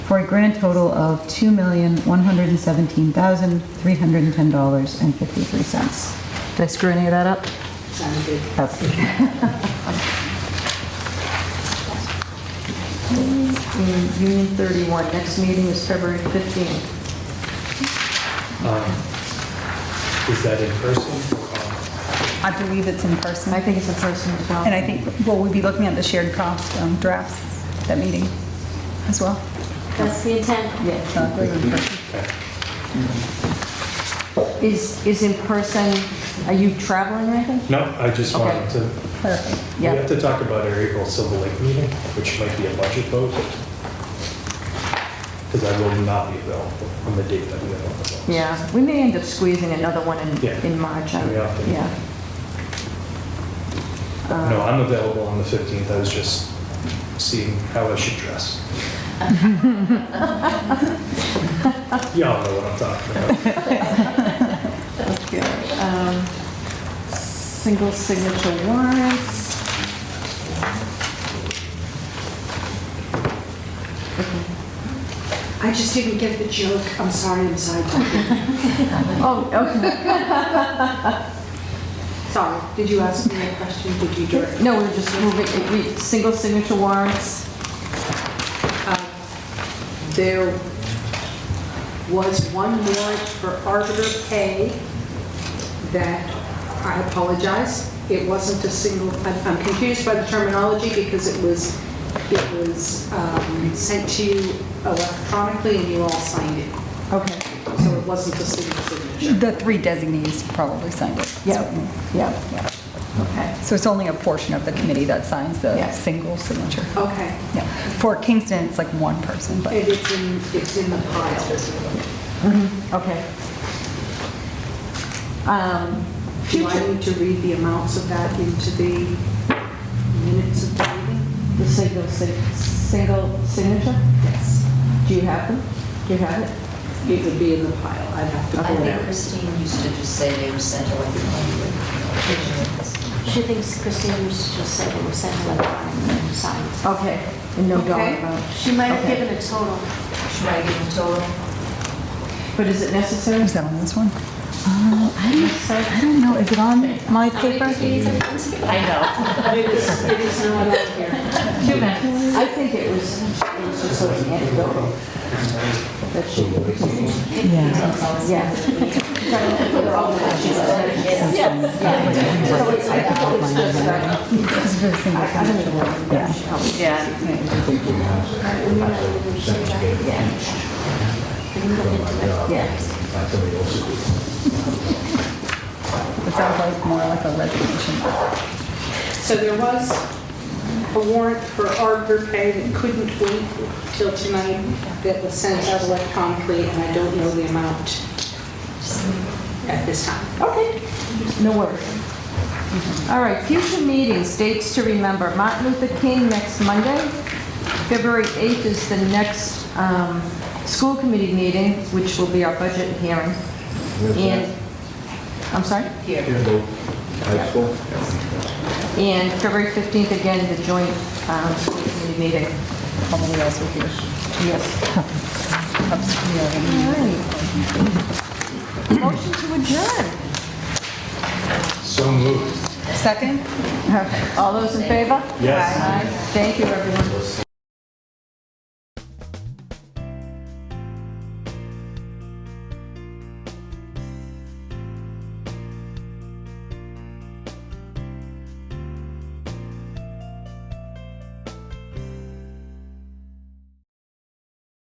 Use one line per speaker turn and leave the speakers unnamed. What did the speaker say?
for a grand total of $2,117,310.53.
Did I screw any of that up?
Sounds good.
Okay.
And Union 31, next meeting is February 15th.
Is that in person? or online?
I believe it's in person.
I think it's a person as well.
And I think, well, we'll be looking at the shared cost um, drafts, that meeting as well.
That's the intent.
Yeah.
So I believe in person.
Is, is in person, are you traveling or anything?
No, I just
Okay.
wanted to,
Perfect.
we
Yeah.
have to talk about our April Silver Lake meeting, which might be a budget vote. Because I will not be available on the date that we have on the books.
Yeah, we may end up squeezing another one in,
Yeah.
in March.
We have to.
Yeah.
No, I'm available on the 15th, I was just seeing how I should dress. Y'all know what I'm talking about.
Okay, um, Single signature warrants.
I just didn't get the joke. I'm sorry, I'm sidetracked.
Oh, okay.
Sorry, did you ask me a question? Did you direct?
No, we're just moving, we, single signature warrants.
There was one warrant for arbiter pay that, I apologize, it wasn't a single, I'm I'm confused by the terminology because it was, it was um, sent to you electronically and you all signed it.
Okay.
So it wasn't a single signature.
The three designees probably signed it.
Yeah, yeah,
Yeah.
okay.
So it's only a portion of the committee that signs the
Yeah.
single signature.
Okay.
Yeah. For Kingston, it's like one person, but
And it's in, it's in the pile.
Okay. Um,
Do
Future,
I need to read the amounts of that into the minutes of the meeting?
the single, sig- single signature?
Yes.
Do you have them? Do you have it?
It would be in the pile, I'd have to
I
pull it
think
out.
Christine used to just say they were sent electronically.
She thinks Christine was just said it was sent electronically and signed.
Okay, and no dollar
Okay.
amount.
She might have
Okay.
given a total.
Should I give a total?
But is it necessary?
is that on this one? Uh, I don't- I don't know, is it on my
How many
paper?
meetings have been together?
I know.
It is, it is not on here.
Two minutes.
I think it was, it was just sort of anecdotal. That she,
Yeah.
yeah. So it's, I think it's just, uh,
It's very single
I don't
signature.
even know.
Yeah.
Yeah.
Yeah.
It sounds like more like a resignation.
So there was a warrant for arbiter pay that couldn't wait till tonight that was sent out electronically, and I don't know the amount at this time.
Okay, no worries. All right, future meetings, dates to remember, Martin Luther King next Monday. February 8th is the next um, school committee meeting, which will be our budget hearing. And, I'm sorry?
High school?
And February 15th, again, the joint um, school committee meeting. How many else are here? Yes. All right. Motion to adjourn.
So moved.
Second?
All those in favor?
Yes.
Aye. Thank you, everyone.